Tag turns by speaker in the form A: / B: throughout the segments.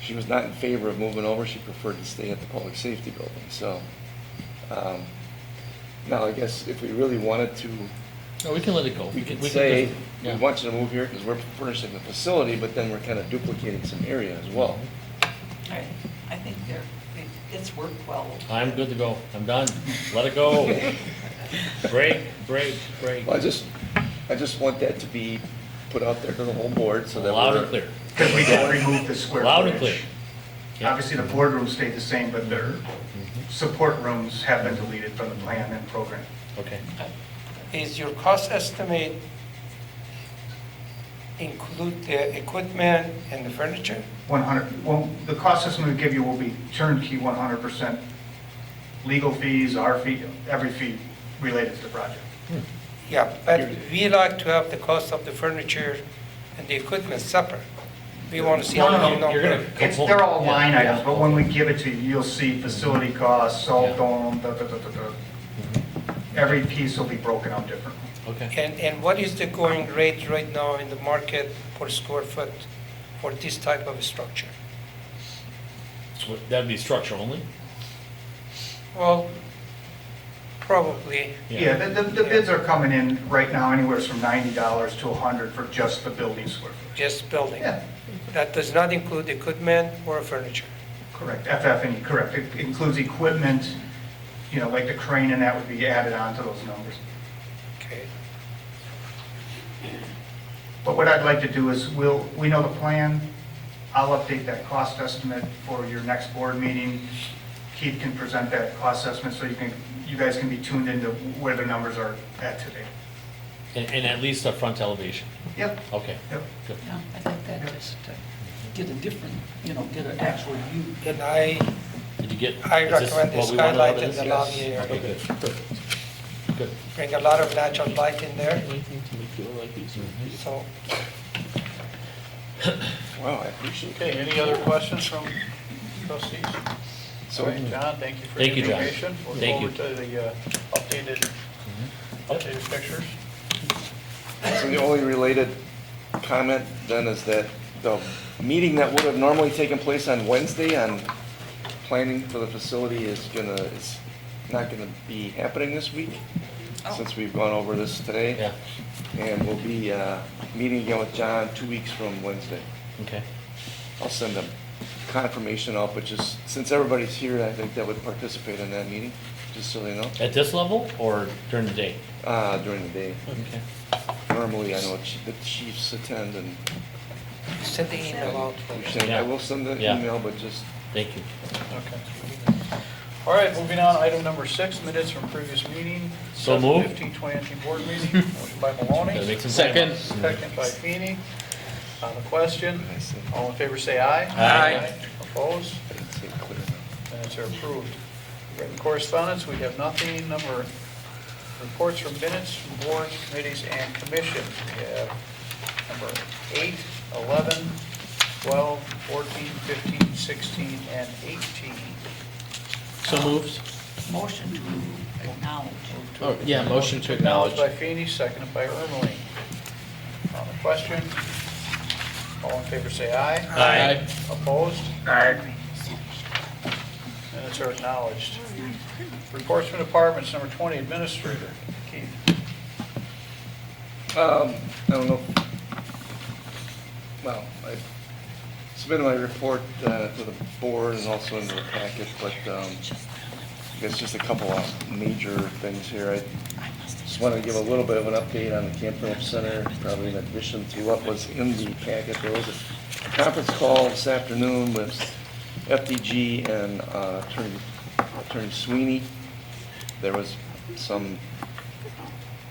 A: she was not in favor of moving over, she preferred to stay at the public safety building, so. um, Now, I guess if we really wanted to,
B: No, we can let it go.
A: we could
B: can
A: say,
B: just-
A: we
B: yeah.
A: want you to move here because we're furnishing the facility, but then we're kind of duplicating some area as well.
C: I I think they're, they- it's worked well.
B: I'm good to go. I'm done. Let it go. Break, break, break.
A: Well, I just, I just want that to be put out there to the whole board so that we're.
B: Loud and clear.
D: Because we don't remove the square
B: Loud and
D: footage.
B: clear. Yeah. Mm-hmm.
D: Obviously, the boardroom stayed the same, but their support rooms have been deleted from the plan and program.
B: Okay.
E: Is your cost estimate include the equipment and the furniture?
D: 100, well, the cost system we give you will be turnkey 100%, legal fees, our fee, every fee related to the project.
E: Yeah, but we like to have the cost of the furniture and the equipment separate. We want to see how many
B: You're gonna
E: number.
B: come
D: It's,
B: home.
D: they're all
B: Yeah,
D: line
B: yeah. Mm-hmm.
D: items, but when we give it to you, you'll see facility costs,
B: Yeah. Mm-hmm.
D: salt dome, da, da, da, da, da. Every piece will be broken out differently.
B: Okay.
E: And, and what is the going rate right now in the market per square foot for this type of structure?
B: So That'd be structure only?
E: Well, probably,
D: Yeah, the, the- the bids are coming in right now anywhere from ninety dollars to a hundred for just the building square footage.
E: just building.
D: Yeah,
E: That does not include equipment or furniture.
D: correct, FF&E, E, correct. It includes equipment, you know, like the crane and that would be added on to those numbers.
E: Okay.
D: But what I'd like to do is, we'll, we know the plan. I'll update that cost estimate for your next board meeting. Keith can present that cost estimate so you can, you guys can be tuned into where the numbers are at today.
B: And, and at least a front elevation.
D: Yep,
B: Okay.
D: yep.
B: Good.
C: Yeah, I think that just uh, get a different, you know, get an actual view.
E: And I,
B: Did you get?
E: I
B: is this
E: recommend the
B: what we wanted out
E: skylight
B: of
E: and
B: this?
E: the
B: Yes.
E: lobby area.
B: Okay, good. Perfect. Good.
E: bring a lot of natural light in there,
B: Mm-hmm.
E: so
A: Wow, I appreciate it.
F: Okay, any other questions from trustees?
A: So
F: All right, John, thank you for
B: Thank you,
F: your
B: John.
F: information.
B: Thank you. Mm-hmm.
F: We'll go over to the uh, updated, updated pictures.
A: So the only related comment then is that the meeting that would have normally taken place on Wednesday on planning for the facility is gonna, is not gonna be happening this week, since we've gone over this today.
B: Yeah,
A: And we'll be, uh, meeting again with John two weeks from Wednesday.
B: okay.
A: I'll send them confirmation out, but just, since everybody's here, I think that would participate in that meeting, just so they know,
B: At this level or during the day?
A: uh, during the day.
B: Okay.
A: Normally, I know ch- the chiefs attend and
E: send the email out.
A: we send, I will send the
B: Yeah.
A: email, but just
B: Thank you.
F: Okay. All right, moving on, item number six, minutes from previous meeting.
B: So moved.
F: 15-2019 board meeting, motion by
B: Gotta
F: Maloney,
B: make some time.
F: second by Feeny. On the question,
A: I said,
F: all in favor say aye.
B: Aye.
F: Opposed?
A: I didn't say it clear enough.
F: Minutes are approved. Written correspondence, we have nothing. Number, reports from minutes, from boards, committees, and commission. We have number 8, 11, 12, 14, 15, 16, and 18.
G: So moved.
C: Motion to acknowledge.
G: Oh, yeah, motion to
F: Acknowledged
G: acknowledge.
F: by Feeny, seconded by Ermeling. On the question, all in favor say aye.
G: Aye.
F: Opposed?
D: Aye.
F: Minutes are acknowledged. Reports from departments, number 20, administrator. Keith?
A: Um, I don't know. Well, I submitted my report uh, to the board and also into the packet, but um, I guess just a couple of major things here. I Just wanted to give a little bit of an update on the Camp Phillips Center, probably in addition to what was in the packet. There was a conference call this afternoon with FDG and uh, Attorney Attorney Sweeney. There was some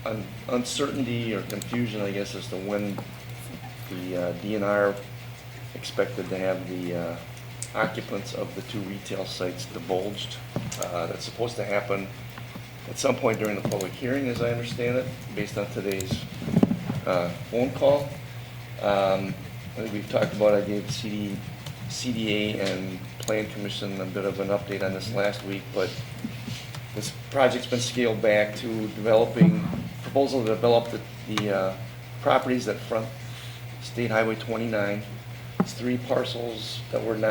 A: un- uncertainty or confusion, I guess, as to when the uh, DNR expected to have the uh, occupants of the two retail sites divulged. Uh, That's supposed to happen at some point during the public hearing, as I understand it, based on today's uh, phone call. Um, I think we've talked about, I gave CD, CDA and Plan Commission a bit of an update on this last week, but this project's been scaled back to developing, proposal to develop the, the uh, properties that front State Highway 29. It's three parcels that were not.